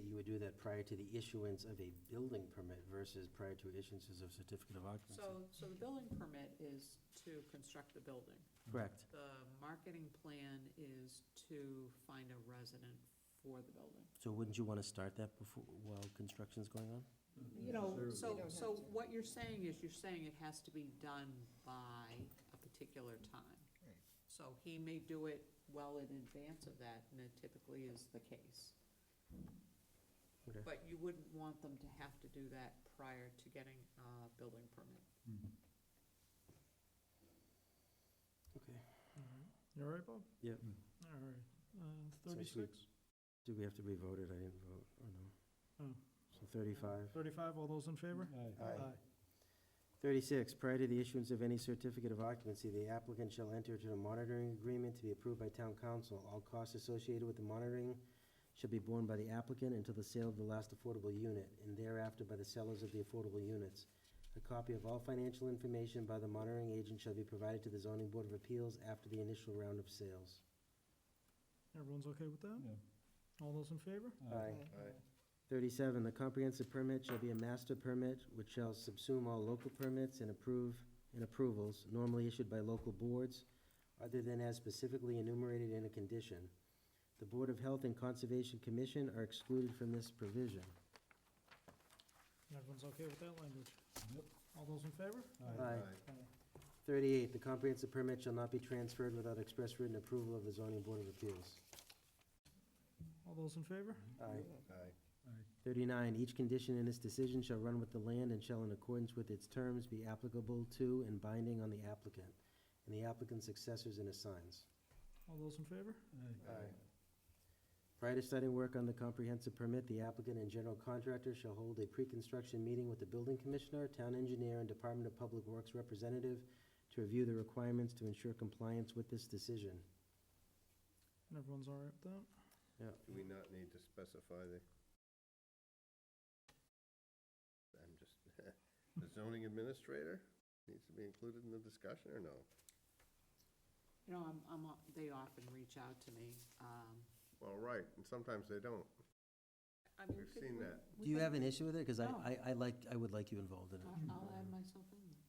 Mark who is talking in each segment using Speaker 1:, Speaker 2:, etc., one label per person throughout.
Speaker 1: do that prior to the issuance of a building permit versus prior to issuances of certificate of occupancy.
Speaker 2: So, so the building permit is to construct the building.
Speaker 1: Correct.
Speaker 2: The marketing plan is to find a resident for the building.
Speaker 1: So wouldn't you want to start that before, while construction's going on? Mm-hmm.
Speaker 2: You know,
Speaker 3: You
Speaker 2: so,
Speaker 3: don't
Speaker 2: so
Speaker 3: have to.
Speaker 2: what you're saying is you're saying it has to be done by a particular time.
Speaker 3: Right.
Speaker 2: So he may do it well in advance of that, and it typically is the case.
Speaker 1: Okay.
Speaker 2: But you wouldn't want them to have to do that prior to getting a building permit.
Speaker 1: Okay.
Speaker 4: You all Mm-hmm. right, Bob?
Speaker 1: Yep.
Speaker 4: All right. Uh,
Speaker 1: So we-
Speaker 4: Thirty-six?
Speaker 1: Do we have to be voted? I didn't vote, or no?
Speaker 4: Oh.
Speaker 1: So 35.
Speaker 4: Thirty-five, all those in favor?
Speaker 1: Aye. 36, prior to the issuance of any certificate of occupancy, the applicant shall enter into a monitoring agreement to be approved by town council. All costs associated with the monitoring shall be borne by the applicant until the sale of the last affordable unit, and thereafter by the sellers of the affordable units. A copy of all financial information by the monitoring agent shall be provided to the zoning board of appeals after the initial round of sales.
Speaker 4: Everyone's okay with that? All those in favor?
Speaker 1: Aye. 37, the comprehensive permit shall be a master permit, which shall subsume all local permits and approve, and approvals normally issued by local boards, other than as specifically enumerated in a condition. The Board of Health and Conservation Commission are excluded from this provision.
Speaker 4: Everyone's okay with that language? All those in favor?
Speaker 1: Aye. 38, the comprehensive permit shall not be transferred without express written approval of the zoning board of appeals.
Speaker 4: All those in favor?
Speaker 1: Aye.
Speaker 3: Aye.
Speaker 1: 39, each condition in this decision shall run with the land and shall in accordance with its terms be applicable to and binding on the applicant and the applicant's successors and assigns.
Speaker 4: All those in favor?
Speaker 1: Aye. Prior to starting work on the comprehensive permit, the applicant and general contractor shall hold a pre-construction meeting with the building commissioner, town engineer, and Department of Public Works representative to review the requirements to ensure compliance with this decision.
Speaker 4: And everyone's all right with that?
Speaker 1: Yeah,
Speaker 3: Do we not need to specify the? I'm just, the zoning administrator needs to be included in the discussion or no?
Speaker 2: You know, I'm, I'm, they often reach out to me. um,
Speaker 3: Well, right, and sometimes they don't.
Speaker 2: I mean,
Speaker 3: We've
Speaker 2: could
Speaker 3: seen
Speaker 2: we-
Speaker 3: that.
Speaker 2: we
Speaker 1: Do you
Speaker 2: could-
Speaker 1: have an issue with it? Because I,
Speaker 2: No.
Speaker 1: I I like, I would like you involved in it.
Speaker 2: I'll I'll add myself in. there.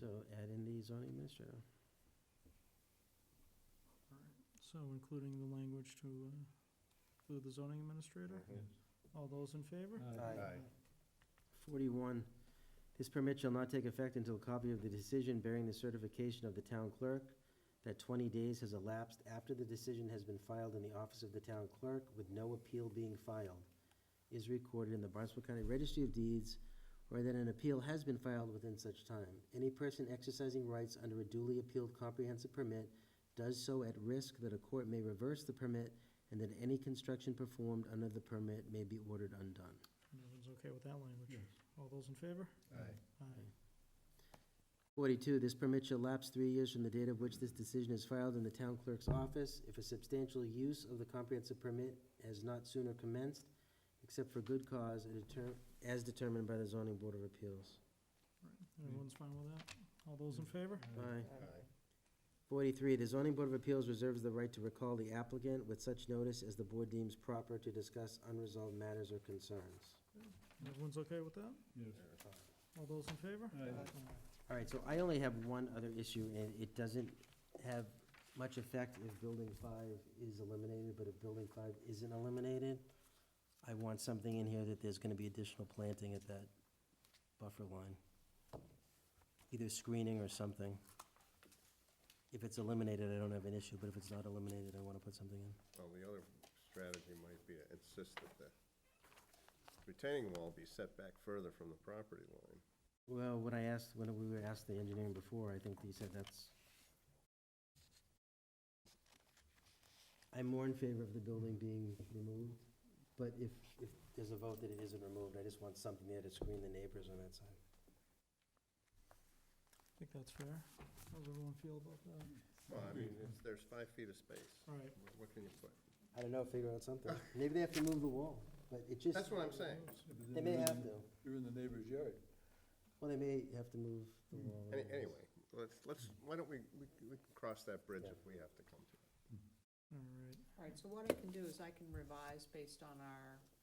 Speaker 1: So add in the zoning administrator.
Speaker 4: So including the language to uh, include the zoning administrator?
Speaker 1: Mm-hmm.
Speaker 4: All those in favor?
Speaker 3: Aye.
Speaker 1: 41, this permit shall not take effect until a copy of the decision bearing the certification of the town clerk that 20 days has elapsed after the decision has been filed in the office of the town clerk with no appeal being filed, is recorded in the Barnstable County Registry of Deeds, or that an appeal has been filed within such time. Any person exercising rights under a duly appealed comprehensive permit does so at risk that a court may reverse the permit and that any construction performed under the permit may be ordered undone.
Speaker 4: And everyone's okay with that language? All those in favor?
Speaker 3: Aye.
Speaker 4: Aye.
Speaker 1: 42, this permit shall lapse three years from the date of which this decision is filed in the town clerk's office if a substantial use of the comprehensive permit has not sooner commenced, except for good cause and deter- as determined by the zoning board of appeals.
Speaker 4: Everyone's fine with that? All those in favor?
Speaker 1: Aye.
Speaker 3: Aye.
Speaker 1: 43, the zoning board of appeals reserves the right to recall the applicant with such notice as the board deems proper to discuss unresolved matters or concerns.
Speaker 4: And Everyone's okay with that?
Speaker 3: Uh,
Speaker 4: All those in favor? Aye.
Speaker 1: All right, so I only have one other issue, and it doesn't have much effect if Building 5 is eliminated, but if Building 5 isn't eliminated, I want something in here that there's going to be additional planting at that buffer line, either screening or something. If it's eliminated, I don't have an issue, but if it's not eliminated, I want to put something in.
Speaker 3: Well, the other strategy might be to insist that the retaining wall be set back further from the property line.
Speaker 1: Well, when I asked, when we were asked the engineering before, I think they said that's... I'm more in favor of the building being removed, but if, if there's a vote that it isn't removed, I just want something there to screen the neighbors on that side.
Speaker 4: I think that's fair. How does everyone feel about that?
Speaker 3: Well, I mean, it's- there's five feet of space.
Speaker 4: All right.
Speaker 3: What- What can you put?
Speaker 1: I don't know, figure out something. Maybe they have to move the wall, but it just...
Speaker 3: That's what I'm saying.
Speaker 1: They may have to.
Speaker 5: You're in the neighbor's yard.
Speaker 1: Well, they may have to move the wall.
Speaker 3: Hmm. Any- Anyway, let's, let's, why don't we, we we can cross that bridge if we have to come to it.
Speaker 4: All right.
Speaker 2: All right, so what I can do is I can revise based on our